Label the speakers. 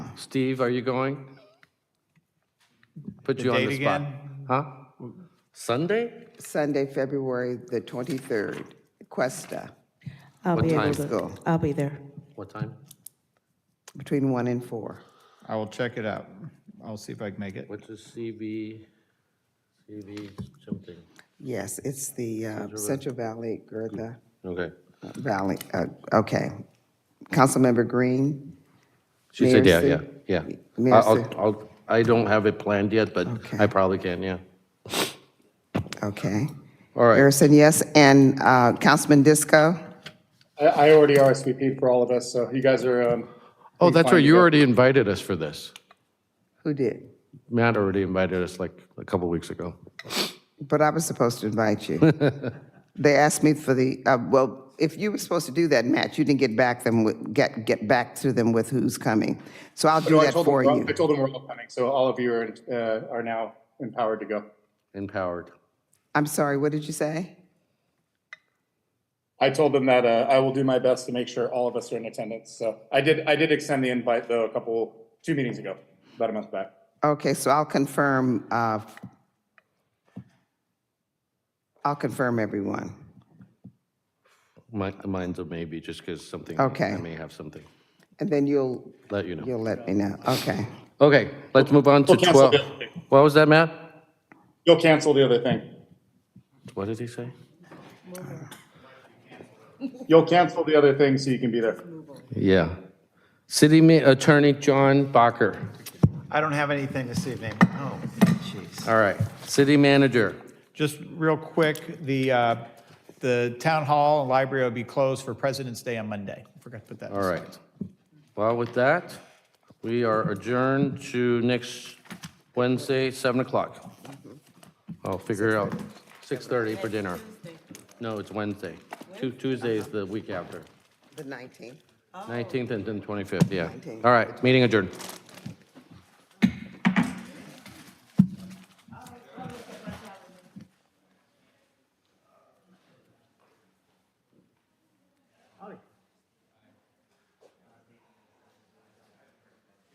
Speaker 1: Steve, are you going? Put you on the
Speaker 2: date
Speaker 1: spot.
Speaker 2: again?
Speaker 1: Huh? Sunday?
Speaker 3: Sunday, February the 23rd, Cuesta,
Speaker 4: I'll
Speaker 1: What
Speaker 4: be
Speaker 1: time?
Speaker 4: able to, I'll be there.
Speaker 1: What time?
Speaker 3: between 1 and 4.
Speaker 2: I will check it out. I'll see if I can make it.
Speaker 1: What's the CB, CB something?
Speaker 3: Yes, it's the uh, Central Valley, Gertha
Speaker 1: Okay.
Speaker 3: Valley, uh, okay. Councilmember Green?
Speaker 1: She said, yeah,
Speaker 3: Mayor
Speaker 1: yeah,
Speaker 3: Sue?
Speaker 1: yeah.
Speaker 3: Mayor
Speaker 1: I- I'll,
Speaker 3: Sue?
Speaker 1: I'll, I don't have it planned yet, but I
Speaker 3: Okay.
Speaker 1: probably can, yeah.
Speaker 3: Okay.
Speaker 1: All right.
Speaker 3: Harrison, yes, and uh, Councilman Disco?
Speaker 5: I, I already RSVP'd for all of us, so you guys are, um,
Speaker 1: Oh, that's right,
Speaker 5: find
Speaker 1: you
Speaker 5: it.
Speaker 1: already invited us for this.
Speaker 3: Who did?
Speaker 1: Matt already invited us like a couple weeks ago.
Speaker 3: But I was supposed to invite you. They asked me for the, uh, well, if you were supposed to do that, Matt, you didn't get back them, with- get, get back to them with who's coming. So I'll do
Speaker 5: no, I
Speaker 3: that
Speaker 5: told them,
Speaker 3: for
Speaker 5: we're all-
Speaker 3: you.
Speaker 5: I told them we're all coming, so all of you are, uh, are now empowered to go.
Speaker 1: Empowered.
Speaker 3: I'm sorry, what did you say?
Speaker 5: I told them that, uh, I will do my best to make sure all of us are in attendance, so I did, I did extend the invite though a couple, two meetings ago, about a month back.
Speaker 3: Okay, so I'll confirm, uh, I'll confirm everyone.
Speaker 1: My, mine's a maybe, just because something,
Speaker 3: Okay.
Speaker 1: I may have something.
Speaker 3: And then you'll,
Speaker 1: Let you know.
Speaker 3: you'll let me know. Okay.
Speaker 1: Okay, let's move on to
Speaker 5: We'll cancel
Speaker 1: 12.
Speaker 5: the other thing.
Speaker 1: What was that, Matt?
Speaker 5: You'll cancel the other thing.
Speaker 1: What did he say?
Speaker 5: You'll cancel the other thing so you can be there.
Speaker 1: Yeah. City Ma- Attorney John Bacher.
Speaker 2: I don't have anything this evening. Oh, jeez.
Speaker 1: All right, City Manager.
Speaker 2: Just real quick, the, uh, the town hall and library will be closed for President's Day on Monday. Forgot to put that. in.
Speaker 1: All right. Well, with that, we are adjourned to next Wednesday, 7 o'clock. I'll figure out, 6:30 for dinner. No, it's Wednesday. Tu- Tuesday is the week after.
Speaker 3: The 19th.
Speaker 1: 19th and then 25th, yeah.
Speaker 3: 19th.
Speaker 1: All right, meeting adjourned.